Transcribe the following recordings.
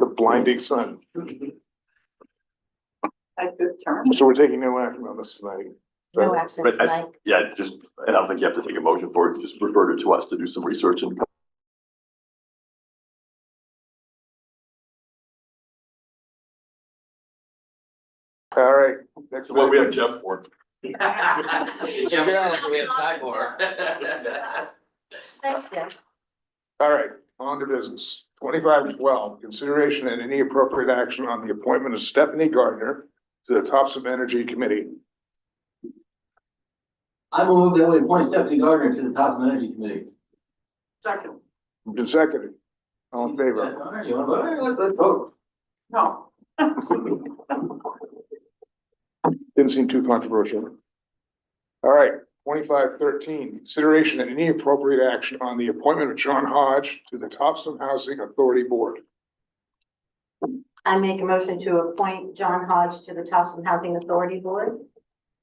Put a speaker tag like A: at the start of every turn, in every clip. A: the blinding sun.
B: A good term.
A: So we're taking no action on this tonight.
C: No action
D: But I-
C: tonight.
D: Yeah, just, and I don't think you have to take a motion for it, just refer it to us to do some research and.
A: All right, next.
D: Well, we have
A: item.
D: Jeff for.
E: Yeah, we have- we have Cyborg.
C: Thanks, Jeff.
A: All right, on to business. Twenty-five twelve, consideration and any appropriate action on the appointment of Stephanie Gardner to the Topsom Energy Committee.
F: I move that we appoint Stephanie Gardner to the Topsom Energy Committee.
B: Second,
A: Moved and seconded. All in favor?
F: All right, you wanna vote? All right, let's, let's vote.
B: no,
A: Didn't seem too controversial. All right, twenty-five thirteen, consideration and any appropriate action on the appointment of John Hodge to the Topsom Housing Authority Board.
C: I make a motion to appoint John Hodge to the Towson Housing Authority Board.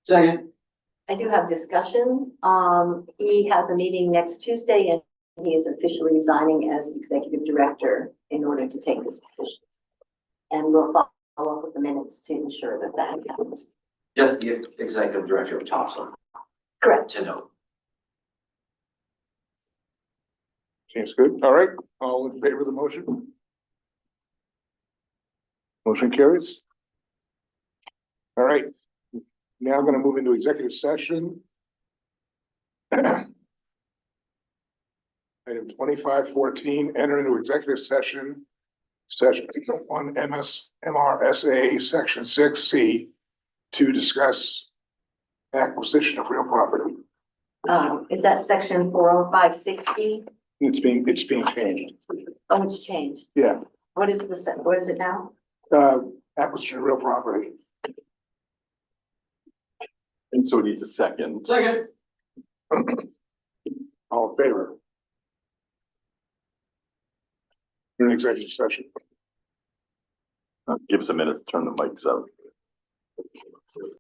F: Second,
C: I do have discussion. Um, he has a meeting next Tuesday and he is officially resigning as executive director in order to take this position. And we'll follow up with the minutes to ensure that that happens.
E: Just the executive director of Thompson
C: Correct.
E: to know.
A: Seems good. All right, all in favor of the motion? Motion carries. All right, now I'm gonna move into executive session. Item twenty-five fourteen, enter into executive session. Session one MS MRSA, section six C, to discuss acquisition of real property.
C: Um, is that section four oh five sixty?
A: It's being, it's being changed.
C: Oh, it's changed.
A: Yeah.
C: What is the, se- what is it now?
A: uh, acquisition of real property.
D: And so it needs a second.
F: second.
A: All in favor? You're in executive session.
D: uh, Give us a minute to turn the mics up.